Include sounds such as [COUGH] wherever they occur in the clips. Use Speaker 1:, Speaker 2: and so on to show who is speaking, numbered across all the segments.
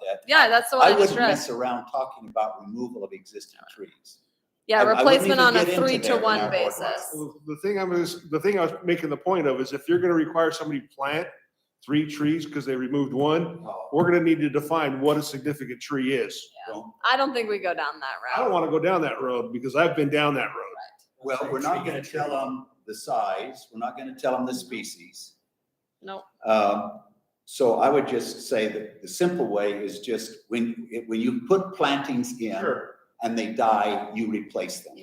Speaker 1: that.
Speaker 2: Yeah, that's the one
Speaker 1: I
Speaker 2: I just
Speaker 1: wouldn't
Speaker 2: read.
Speaker 1: mess around talking about removal of existing trees. I- I
Speaker 2: Yeah,
Speaker 1: wouldn't
Speaker 2: replacement
Speaker 1: even
Speaker 2: on a
Speaker 1: get into
Speaker 2: three
Speaker 1: there
Speaker 2: to
Speaker 1: in our
Speaker 2: one
Speaker 1: board docs.
Speaker 2: basis.
Speaker 3: Well, The thing I was, the thing I was making the point of is if you're gonna require somebody to plant three trees because they removed one,
Speaker 1: Oh,
Speaker 3: we're gonna need to define what a significant tree is.
Speaker 2: I don't think we go down
Speaker 3: I
Speaker 2: that
Speaker 3: don't
Speaker 2: route.
Speaker 3: wanna go down that road because I've been down that road.
Speaker 1: Well, we're not gonna tell them the size, we're not gonna tell them the species.
Speaker 2: No,
Speaker 1: Um, So I would just say that the simple way is just when, when you put plantings in and they die, you replace them.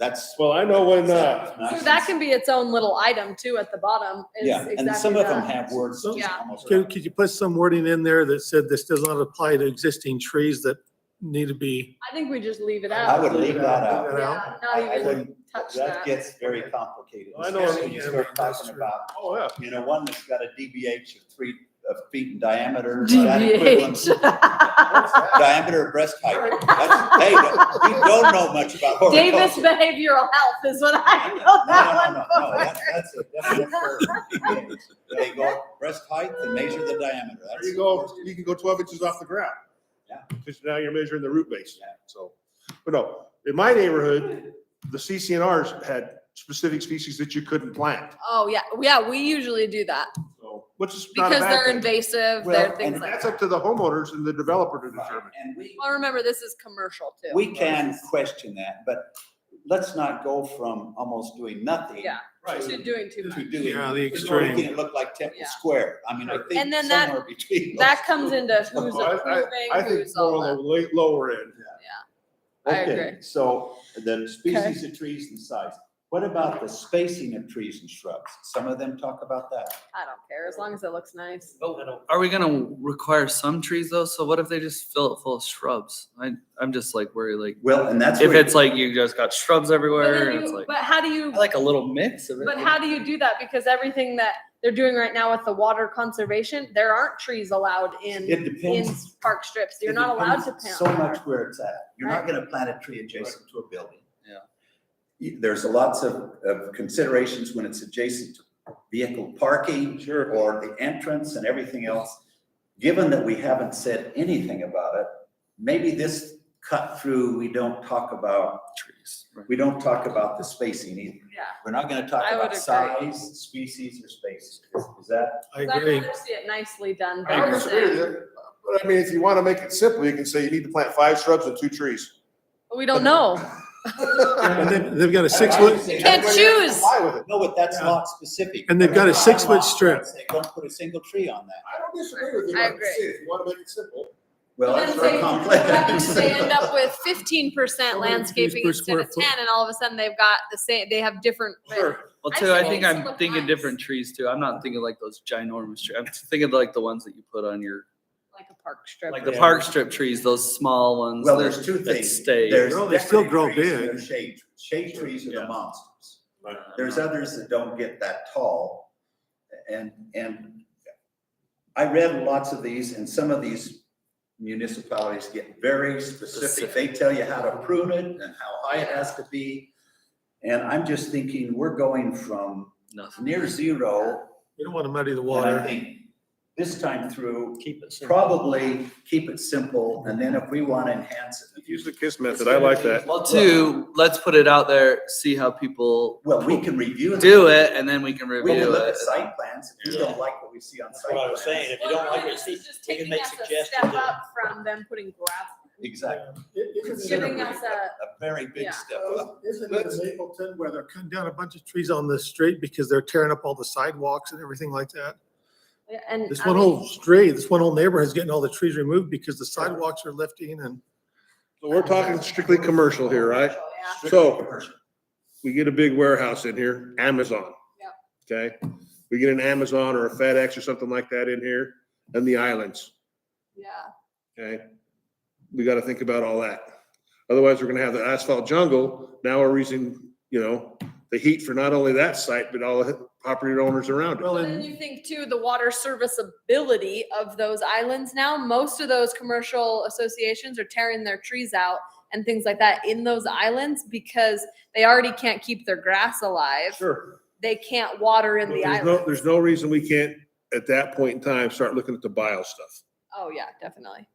Speaker 1: That's.
Speaker 3: Well, I know when, uh,
Speaker 2: so that can be its own little item too at the bottom is
Speaker 1: Yeah,
Speaker 2: exactly
Speaker 1: and some of them
Speaker 2: that.
Speaker 1: have words just
Speaker 2: Yeah.
Speaker 1: almost.
Speaker 4: Could, could you put some wording in there that said this does not apply to existing trees that need to be?
Speaker 2: I think we just leave it
Speaker 1: I
Speaker 2: out.
Speaker 1: would leave that
Speaker 4: Leave
Speaker 1: out.
Speaker 4: that out.
Speaker 2: Yeah, not
Speaker 1: I- I
Speaker 2: even
Speaker 1: wouldn't-
Speaker 2: touch
Speaker 1: That
Speaker 2: that.
Speaker 1: gets very complicated,
Speaker 3: I know what
Speaker 1: especially when
Speaker 4: you
Speaker 1: you
Speaker 4: mean,
Speaker 1: start
Speaker 4: that's
Speaker 1: talking
Speaker 4: true.
Speaker 1: about,
Speaker 3: oh, yeah.
Speaker 1: you know, one that's got a DBH of three, of feet in diameter. that equivalent- [LAUGHS]
Speaker 2: DBH.
Speaker 1: Diameter of breast height. That's- Hey, you don't know much about
Speaker 2: [LAUGHS] Davis
Speaker 1: horticulture.
Speaker 2: behavioral health is what I know
Speaker 1: No, no,
Speaker 2: that
Speaker 1: no,
Speaker 2: one
Speaker 1: no, no,
Speaker 2: for.
Speaker 1: that's, that's a definite curve. They go breast height and measure the diameter.
Speaker 3: There
Speaker 1: That's-
Speaker 3: you go, you can go twelve inches off the ground.
Speaker 1: Yeah.
Speaker 3: Because now you're measuring the root base,
Speaker 1: Yeah.
Speaker 3: so, but no, in my neighborhood, the CCNRs had specific species that you couldn't plant,
Speaker 2: Oh, yeah, yeah, we usually do that
Speaker 3: so, which is not a
Speaker 2: because
Speaker 3: bad
Speaker 2: they're
Speaker 3: thing.
Speaker 1: Well,
Speaker 2: invasive, they're things
Speaker 1: and
Speaker 2: like
Speaker 3: That's
Speaker 2: that.
Speaker 3: up to the homeowners and the developer to determine.
Speaker 1: And we,
Speaker 2: Well, remember, this is commercial too.
Speaker 1: we can question that, but let's not go from almost doing nothing.
Speaker 2: Yeah. To doing too much.
Speaker 1: To doing.
Speaker 4: Yeah, the
Speaker 1: or
Speaker 4: extreme.
Speaker 1: Making it look like Temple
Speaker 2: Yeah.
Speaker 1: Square. I mean, I think
Speaker 2: And then that-
Speaker 1: somewhere between.
Speaker 2: That
Speaker 1: those
Speaker 2: comes
Speaker 1: two.
Speaker 2: into who's
Speaker 3: Oh, I- I-
Speaker 2: approving,
Speaker 3: I think
Speaker 2: who's all
Speaker 3: more on
Speaker 2: that.
Speaker 3: the late, lower end.
Speaker 2: I
Speaker 1: Okay,
Speaker 2: agree.
Speaker 1: So the species of trees and size. What about the spacing of trees and shrubs? Some of them talk about that.
Speaker 2: I don't care, as long as it looks nice.
Speaker 5: Are we gonna require some trees though? So what if they just fill it full of shrubs? I, I'm just like worried, like,
Speaker 1: Well, and that's.
Speaker 5: if
Speaker 1: where-
Speaker 5: it's like you just got shrubs
Speaker 2: But
Speaker 5: everywhere
Speaker 2: then
Speaker 5: and it's
Speaker 2: you,
Speaker 5: like,
Speaker 2: but how do you,
Speaker 5: I like a little mix of it.
Speaker 2: but how do you do that? Because everything that they're doing right now with the water conservation, there aren't trees allowed in,
Speaker 1: It
Speaker 2: in
Speaker 1: depends.
Speaker 2: park strips. You're
Speaker 1: It
Speaker 2: not allowed to
Speaker 1: depends So
Speaker 2: plant.
Speaker 1: much where it's at. You're not
Speaker 2: Right.
Speaker 1: gonna plant a tree adjacent to a building.
Speaker 5: Yeah.
Speaker 1: You- There's lots of, of considerations when it's adjacent to vehicle parking. Or the entrance and everything else. Given that we haven't said anything about it, maybe this cut through, we don't talk about,
Speaker 5: Trees. right.
Speaker 1: we don't talk about the spacing either. We're not gonna talk
Speaker 2: I would
Speaker 1: about
Speaker 2: agree.
Speaker 1: size, species, or space. Is- Is that?
Speaker 4: I
Speaker 2: Yeah. 'Cause I'd
Speaker 4: agree.
Speaker 2: rather see it nicely done
Speaker 3: I don't disagree with
Speaker 2: versus,
Speaker 3: you, But I mean, if you want to make it simple, you can say you need to plant five shrubs and two [LAUGHS] trees.
Speaker 2: But we don't know.
Speaker 4: And
Speaker 3: Can't
Speaker 4: they've, they've got a six foot,
Speaker 2: Can't choose.
Speaker 3: Comply with it.
Speaker 1: No, but that's lot specific.
Speaker 4: And they've got a
Speaker 1: By
Speaker 4: six-foot
Speaker 1: law,
Speaker 4: strip.
Speaker 1: They don't put a single tree on that.
Speaker 3: I don't disagree with you.
Speaker 2: I
Speaker 3: like I
Speaker 2: agree.
Speaker 3: said, If you want to make it simple.
Speaker 1: Well,
Speaker 2: But
Speaker 1: that's
Speaker 2: then
Speaker 1: very
Speaker 2: they-
Speaker 1: complex.
Speaker 2: They end up with fifteen percent
Speaker 4: How many trees
Speaker 2: landscaping
Speaker 4: per
Speaker 2: instead of
Speaker 4: square foot?
Speaker 2: ten, and all of a sudden they've got the same, they have different.
Speaker 5: Well,
Speaker 2: I
Speaker 5: too, I
Speaker 2: say
Speaker 5: think
Speaker 2: some
Speaker 5: I'm
Speaker 2: of
Speaker 5: thinking
Speaker 2: mine.
Speaker 5: different trees too. I'm not thinking like those ginormous trees. I'm thinking like the ones that you put on your,
Speaker 2: Like a park strip.
Speaker 5: like the park strip trees, those small ones.
Speaker 1: Well,
Speaker 5: that-
Speaker 1: there's two
Speaker 5: that
Speaker 1: things.
Speaker 5: Stay.
Speaker 1: There's
Speaker 4: Well, they still
Speaker 1: decorative
Speaker 4: grow
Speaker 1: trees and
Speaker 4: big.
Speaker 1: there's Shade, shade trees are the
Speaker 5: Yeah.
Speaker 1: monsters.
Speaker 3: Right.
Speaker 1: There's others that don't get that tall. And, and I read lots of these and some of these municipalities get very specific. They tell you how to prune it and how high it has to be. And I'm just thinking, we're going from
Speaker 5: Nothing.
Speaker 1: near zero.
Speaker 4: you don't want to muddy the
Speaker 1: And I
Speaker 4: water.
Speaker 1: think this time through,
Speaker 5: Keep it simple.
Speaker 1: probably keep it simple. And then if we want to enhance it, if you
Speaker 3: Use the KISS method. I like that.
Speaker 5: Well, two, let's put it out there, see how people
Speaker 1: Well, we can review.
Speaker 5: do it and then we can
Speaker 1: We can
Speaker 5: review
Speaker 1: look
Speaker 5: it.
Speaker 1: at site plans. If you don't like what we see on
Speaker 6: That's
Speaker 1: site.
Speaker 6: what I was
Speaker 1: plans-
Speaker 6: saying, if you don't like what you see,
Speaker 2: just
Speaker 6: you can
Speaker 2: taking
Speaker 6: make
Speaker 2: us a
Speaker 6: suggestions
Speaker 2: Step
Speaker 6: and-
Speaker 2: up from them putting gravel,
Speaker 1: Exactly.
Speaker 2: giving
Speaker 1: Considerably,
Speaker 2: us a,
Speaker 1: A very
Speaker 2: Yeah.
Speaker 1: big step up.
Speaker 4: Isn't it in Mapleton where they're cutting down a bunch of trees on the street because they're tearing up all the sidewalks and everything like that?
Speaker 2: and.
Speaker 4: This
Speaker 2: I
Speaker 4: one
Speaker 2: mean,
Speaker 4: whole street, this one whole neighborhood is getting all the trees removed because the sidewalks are lifting and.
Speaker 3: So we're talking strictly commercial here, right?
Speaker 2: Yeah,
Speaker 3: So-
Speaker 1: Commercial.
Speaker 3: We get a big warehouse in here, Amazon. Okay, we get an Amazon or a FedEx or something like that in here and the islands.
Speaker 2: yeah,
Speaker 3: Okay, we gotta think about all that. Otherwise, we're gonna have the asphalt jungle. Now we're using, you know, the heat for not only that site, but all the property owners around it.
Speaker 4: Well,
Speaker 2: but then
Speaker 4: and
Speaker 2: you think too, the water serviceability of those islands now, most of those commercial associations are tearing their trees out and things like that in those islands because they already can't keep their grass alive.
Speaker 3: Sure.
Speaker 2: They can't water in the
Speaker 3: There's no,
Speaker 2: island.
Speaker 3: there's no reason we can't, at that point in time, start looking at the bio stuff.
Speaker 2: Oh, yeah, definitely.